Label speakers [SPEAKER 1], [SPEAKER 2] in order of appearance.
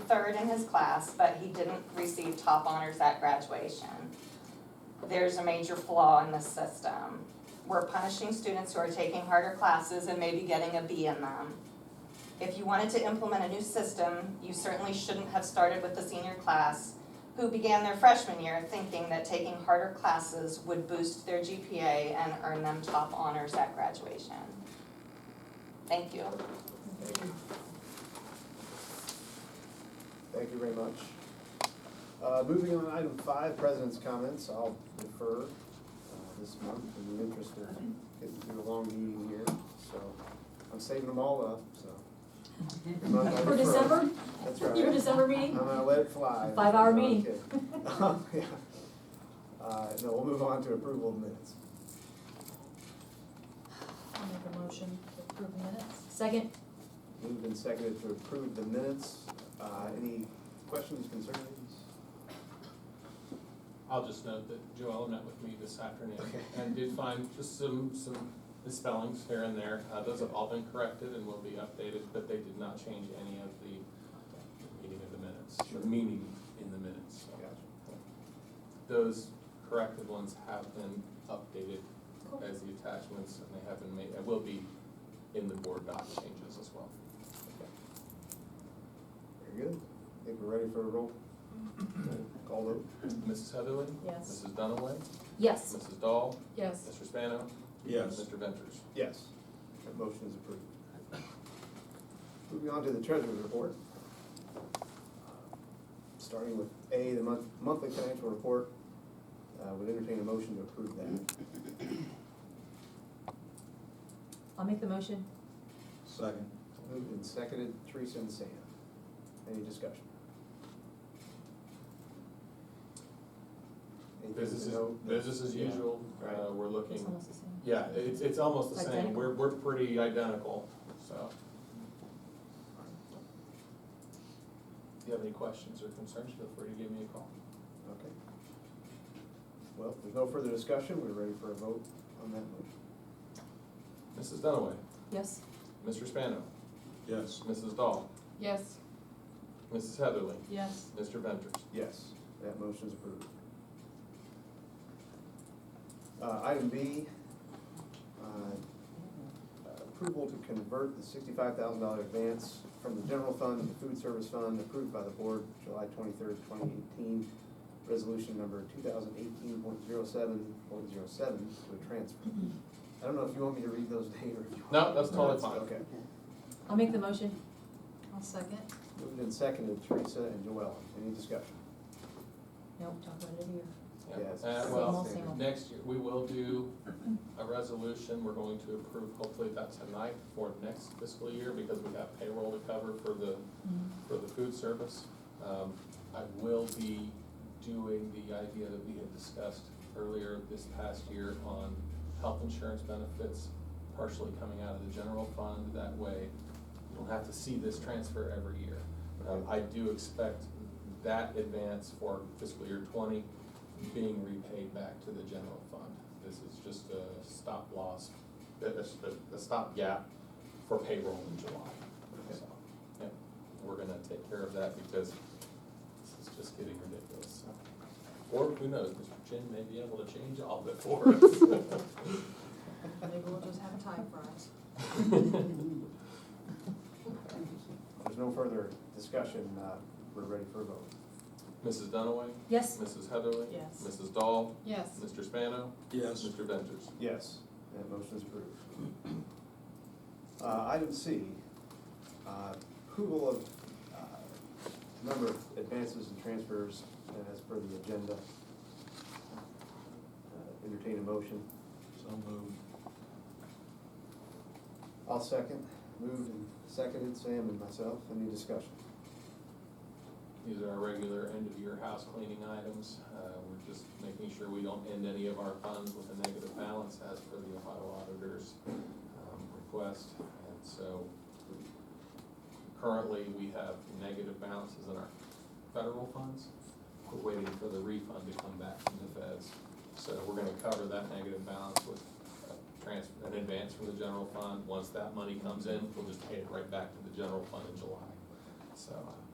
[SPEAKER 1] third in his class, but he didn't receive top honors at graduation. There's a major flaw in the system. We're punishing students who are taking harder classes and maybe getting a B in them. If you wanted to implement a new system, you certainly shouldn't have started with the senior class who began their freshman year thinking that taking harder classes would boost their GPA and earn them top honors at graduation. Thank you.
[SPEAKER 2] Thank you. Thank you very much. Uh, moving on, item five, president's comments, I'll defer, uh, this month in the interest of getting through a long meeting here, so I'm saving them all up, so. This month I defer.
[SPEAKER 3] For December,
[SPEAKER 2] That's
[SPEAKER 3] your
[SPEAKER 2] right,
[SPEAKER 3] December
[SPEAKER 2] I'm
[SPEAKER 3] meeting?
[SPEAKER 2] gonna let it fly.
[SPEAKER 3] Five-hour
[SPEAKER 2] No, I'm
[SPEAKER 3] meeting.
[SPEAKER 2] kidding. Oh, Yeah. Uh, no, we'll move on to approval of minutes.
[SPEAKER 3] I'll make a motion to approve the minutes. Second,
[SPEAKER 2] Moved and seconded to approve the minutes. Uh, Any questions, concerns?
[SPEAKER 4] I'll just note that Joella met with me this afternoon
[SPEAKER 2] Okay.
[SPEAKER 4] and did find just some, some misspellings here and there. Uh, those have all been corrected and will be updated, but they did not change any of the meaning of the minutes,
[SPEAKER 2] Sure.
[SPEAKER 4] the meaning in the minutes. So
[SPEAKER 2] Gotcha.
[SPEAKER 4] Those corrected ones have been updated
[SPEAKER 3] Cool.
[SPEAKER 4] as the attachments and they have been made, and will be in the board doc changes as well.
[SPEAKER 2] Very good. I think we're ready for a roll. Call vote.
[SPEAKER 4] Mrs. Heatherly?
[SPEAKER 3] Hmm. yes.
[SPEAKER 4] Mrs. Dunaway?
[SPEAKER 3] Yes.
[SPEAKER 4] Mrs. Dahl?
[SPEAKER 3] Yes.
[SPEAKER 4] Mr. Spano?
[SPEAKER 5] Yes.
[SPEAKER 4] Mr. Ventures?
[SPEAKER 2] Yes. That motion is approved. Moving on to the treasurer's report. Uh, Starting with A, the month, monthly financial report, uh, would entertain a motion to approve that.
[SPEAKER 3] I'll make the motion.
[SPEAKER 5] Second.
[SPEAKER 2] Moved and seconded, Teresa and Sam. Any discussion? Anything
[SPEAKER 4] Business
[SPEAKER 2] to
[SPEAKER 4] as,
[SPEAKER 2] note?
[SPEAKER 4] business as
[SPEAKER 2] Yeah.
[SPEAKER 4] usual,
[SPEAKER 2] Right.
[SPEAKER 4] uh, we're
[SPEAKER 3] It's
[SPEAKER 4] looking,
[SPEAKER 3] almost the same.
[SPEAKER 4] yeah, it's, it's almost the same,
[SPEAKER 3] Identical.
[SPEAKER 4] we're, we're pretty identical, so. If you have any questions or concerns, feel free to give me a call.
[SPEAKER 2] Okay. Well, if there's no further discussion, we're ready for a vote on that motion.
[SPEAKER 4] Mrs. Dunaway,
[SPEAKER 3] Yes.
[SPEAKER 4] Mr. Spano,
[SPEAKER 5] Yes.
[SPEAKER 4] Mrs. Dahl,
[SPEAKER 3] Yes.
[SPEAKER 4] Mrs. Heatherly,
[SPEAKER 3] Yes.
[SPEAKER 4] Mr. Ventures.
[SPEAKER 2] Yes. That motion is approved. Uh, item B, uh, approval to convert the sixty-five thousand dollar advance from the general fund to the food service fund approved by the board July twenty-third, twenty eighteen. Resolution number two thousand eighteen point zero seven point zero seven to a transfer. I don't know if you want me to read those names or if you want.
[SPEAKER 4] No, that's totally fine.
[SPEAKER 2] Okay.
[SPEAKER 3] I'll make the motion. I'll second.
[SPEAKER 2] Moved and seconded, Teresa and Joella, any discussion?
[SPEAKER 3] Nope, talk about it here.
[SPEAKER 4] Yeah.
[SPEAKER 2] Yes.
[SPEAKER 4] Uh,
[SPEAKER 3] Same
[SPEAKER 4] well,
[SPEAKER 3] old, same old.
[SPEAKER 4] next year, we will do a resolution, we're going to approve hopefully that tonight for next fiscal year, because we got payroll to cover for the for the food service. Um, I will be doing the idea that we had discussed earlier this past year on health insurance benefits partially coming out of the general fund. That way, you don't have to see this transfer every year. Um, I do expect that advance for fiscal year twenty being repaid back to the general fund. This is just a stop loss, a, a, a stop gap for payroll in July. So, yeah, we're gonna take care of that because this is just getting ridiculous, so. Or who knows, Mr. Chin may be able to change all of it for us.
[SPEAKER 3] Maybe we'll just have a tie for us.
[SPEAKER 2] If There's no further discussion, uh, we're ready for a vote.
[SPEAKER 4] Mrs. Dunaway,
[SPEAKER 3] Yes.
[SPEAKER 4] Mrs. Heatherly.
[SPEAKER 3] Yes.
[SPEAKER 4] Mrs. Dahl,
[SPEAKER 3] Yes.
[SPEAKER 4] Mr. Spano,
[SPEAKER 5] Yes.
[SPEAKER 4] Mr. Ventures.
[SPEAKER 2] Yes, that motion is approved. Uh, item C, uh, approval of, uh, number of advances and transfers as per the agenda. Uh, Entertain a motion.
[SPEAKER 5] So moved.
[SPEAKER 2] I'll second. Moved and seconded, Sam and myself, any discussion?
[SPEAKER 4] These are our regular end-of-year house cleaning items. Uh, We're just making sure we don't end any of our funds with a negative balance as per the Ohio auditor's um, request. And so currently, we have negative balances in our federal funds. We're waiting for the refund to come back from the feds. So we're gonna cover that negative balance with a transfer, an advance from the general fund. Once that money comes in, we'll just pay it right back to the general fund in July. So uh,